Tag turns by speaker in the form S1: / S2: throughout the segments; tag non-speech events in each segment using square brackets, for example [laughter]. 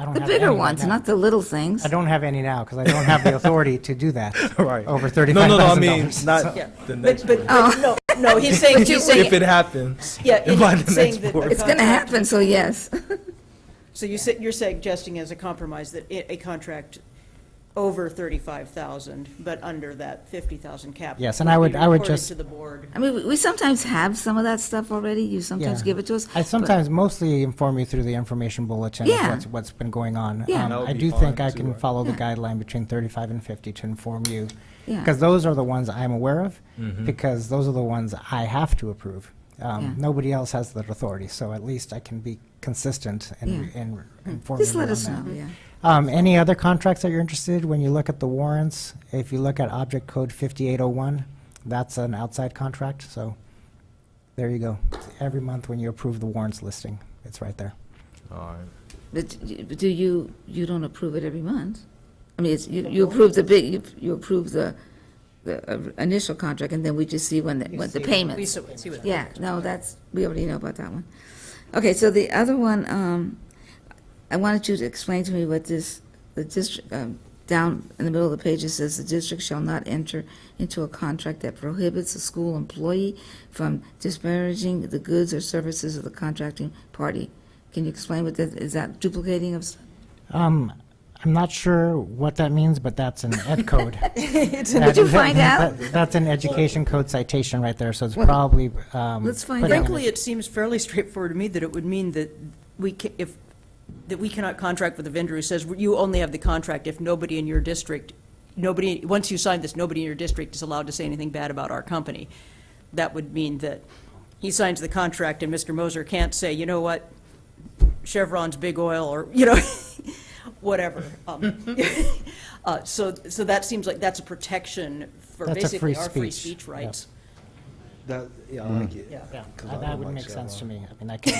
S1: I don't
S2: The
S1: have any
S2: bigger
S1: right
S2: ones,
S1: now.
S2: not the little things.
S1: I don't have any now because I don't have
S2: [laughs]
S1: the authority to do that.
S3: Right.
S1: Over
S3: No,
S1: thirty-five
S3: no, no, I
S1: thousand
S3: mean,
S1: dollars.
S3: not
S4: Yeah.
S3: the next
S4: But, but,
S3: board.
S4: but no, no, he's saying, he's
S3: If it
S4: saying,
S3: happens.
S4: yeah,
S3: [laughs] if by the
S4: he's saying
S3: next
S4: that. the
S3: board.
S2: It's going to
S4: contract-
S2: happen, so yes.
S1: [laughs]
S4: So you said, you're suggesting as a compromise that i- a contract over thirty-five thousand, but under that fifty thousand cap.
S1: Yes, and I would-
S4: be
S1: I would
S4: reported
S1: just-
S4: To the board.
S2: I mean, we- we sometimes have some of that stuff already. You sometimes
S1: Yeah.
S2: give it to us.
S1: I
S2: but-
S1: sometimes mostly inform you through the information bulletin of
S2: Yeah.
S1: what's, what's been going on.
S2: Yeah.
S1: Um,
S3: That would
S1: I
S3: be
S1: do think
S3: fine,
S1: I
S3: too,
S1: can
S3: right?
S1: follow the guideline between thirty-five and fifty to inform you.
S2: Yeah.
S1: Because those are the ones I'm aware of,
S3: Mm-hmm.
S1: because those are the ones I have to approve. Um,
S2: Yeah.
S1: Nobody else has that authority, so at least I can be consistent and,
S2: Yeah. Mm-hmm.
S1: and inform
S2: Just
S1: you
S2: let
S1: on
S2: us
S1: that.
S2: know, yeah.
S1: Um, any other contracts that you're interested, when you look at the warrants, if you look at object code fifty-eight oh one, that's an outside contract, so there you go. Every month when you approve the warrants listing, it's right there.
S3: All right.
S2: But y- do you, you don't approve it every month? I mean, it's, you you approve the big, you- you approve the, the uh, initial contract, and then we just see when, the- what the
S4: We
S2: payments.
S4: so- see what
S2: Yeah, no, that's, we already know about that one. Okay, so the other one, um, I wanted you to explain to me what this, the district, um, down in the middle of the page, it says, "The district shall not enter into a contract that prohibits a school employee from disparaging the goods or services of the contracting party." Can you explain what that, is that duplicating of, s-
S1: Um, I'm not sure what that means, but that's an
S2: [laughs]
S1: ed code. Did
S2: you find out?
S1: That's an education code citation right there, so it's
S2: Well,
S1: probably, um.
S2: let's find
S1: putting
S2: out.
S1: it-
S4: Frankly, it seems fairly [laughs] straightforward to me that it would mean that we, ca- if, that we cannot contract with a vendor who says, you only have the contract if nobody in your district, nobody, once you sign this, nobody in your district is allowed to say anything bad about our company. That would mean that he signs the contract and Mr. Moser can't say, you know what, Chevron's Big Oil, or, you know, [laughs] whatever. Um, [laughs] uh, So, so that seems like that's a protection for
S1: That's a
S4: basically
S1: free
S4: our free
S1: speech,
S4: speech
S1: yeah.
S4: rights.
S5: That, yeah, I like it.
S4: Yeah.
S1: Yeah,
S5: 'Cause I
S1: that
S5: don't
S1: would
S5: like
S1: make sense to
S5: Chevron.
S1: me. I mean, I can,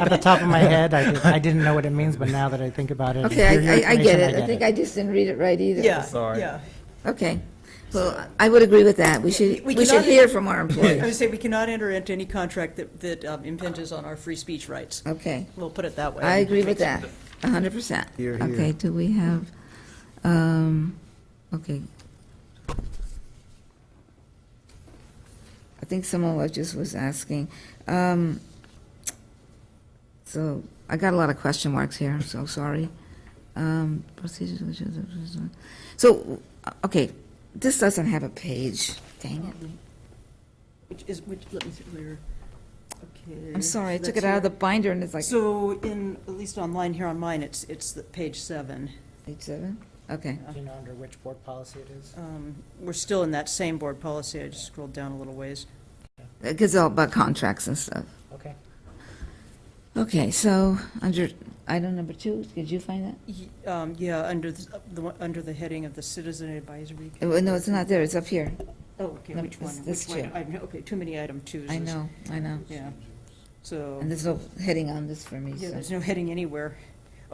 S1: at the top of
S5: [laughs]
S1: my head, I, did- I didn't know what it means, but now that I think about it.
S2: [laughs] okay,
S1: through your
S2: I- I, I get
S1: information,
S2: it. I think I just didn't read it right either.
S4: Yeah,
S3: Sorry.
S4: yeah.
S2: Okay, well, I would agree with that. We should,
S4: We
S2: we should
S4: cannot-
S2: hear from our [laughs]
S4: I would
S2: employees.
S4: say we cannot enter into any contract that, that um, impinges on our free speech rights.
S2: Okay.
S4: We'll put it that way.
S2: I agree with that, a hundred percent.
S5: Here, here.
S2: Okay, do we have, um, okay. I think someone was just was asking, um, so, I got a lot of question marks here, I'm so sorry. Um, procedures, which is- so, okay, this doesn't have a page, dang it.
S4: Which is, which, let me see, where, okay.
S2: I'm sorry, I took it out of the binder and it's like
S4: So in, at least online here on mine, it's, it's the page seven.
S2: page seven? Okay,
S1: Do you know under which board policy it is?
S4: Um, We're still in that same board policy. I just scrolled down a little ways.
S2: because all about contracts and stuff.
S1: Okay.
S2: Okay, so under item number two, did you find that?
S4: Y- um, Yeah, under the, the one- under the heading of the Citizen Advisory.
S2: Uh, well, No, it's not there, it's up here.
S4: Oh, okay,
S2: No,
S4: which one?
S2: this- this
S4: Which one?
S2: chair.
S4: I know, Okay, too many item twos.
S2: I
S4: is-
S2: know, I know.
S4: Yeah, so.
S2: And there's no heading on this for me,
S4: Yeah,
S2: so.
S4: there's no heading anywhere.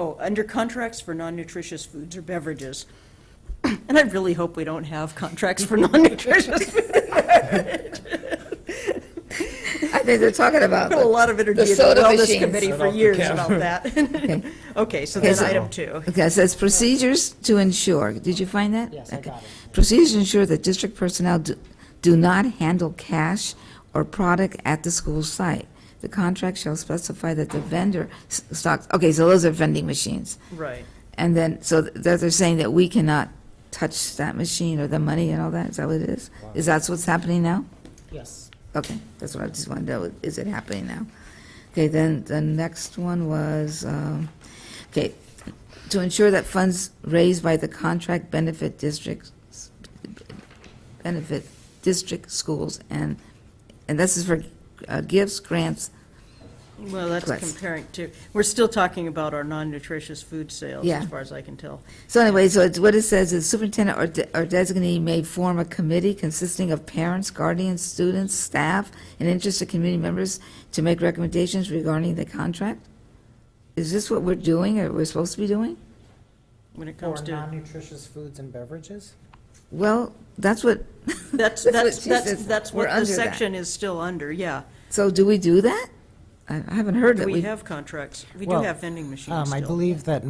S4: Oh, under contracts for non-nutritious foods or beverages. [clears throat] And I really hope we don't have contracts for non-nutritious. food.
S2: [laughs] I think they're talking about,
S4: Put a
S2: the-
S4: lot of energy into the
S2: soda
S4: wellness
S2: machines.
S4: committee
S3: Set
S4: for
S3: off the
S4: years
S3: cap.
S4: about that. [laughs] Okay, so then
S2: so-
S4: item two.
S2: okay, it says procedures to ensure. Did you find that?
S1: Yes, I
S2: Okay.
S1: got it.
S2: Procedures to ensure that district personnel do- do not handle cash or product at the school site. The contract shall specify that the vendor s- stocks, okay, so those are vending machines.
S4: Right.
S2: And then, so th- that they're saying that we cannot touch that machine or the money and all that, is that what it is? Is that what's happening now?
S1: Yes.
S2: Okay, that's what I just wanted to know, is it happening now? Okay, then the next one was, um, okay, to ensure that funds raised by the contract benefit districts, benefit district schools and, and this is for uh, gifts, grants,
S4: Well, that's
S2: Let's-
S4: comparing to, we're still talking about our non-nutritious food sales,
S2: Yeah.
S4: as far as I can tell.
S2: So anyway, so it's, what it says is superintendent or de- or designee may form a committee consisting of parents, guardians, students, staff, and interested community members to make recommendations regarding the contract? Is this what we're doing or we're supposed to be doing?
S4: When it
S1: Or
S4: comes to,
S1: non-nutritious foods and beverages?
S2: Well, [laughs] that's what,
S4: [laughs] that's,
S2: what
S4: that's,
S2: she
S4: that's,
S2: says.
S4: that's
S2: We're
S4: what the
S2: under that.
S4: section is still under, yeah.
S2: so do we do that? I I haven't heard
S4: Do
S2: that
S4: we
S2: we.
S4: have contracts? We do
S1: Well,
S4: have vending machines
S1: Um, I
S4: still.
S1: believe that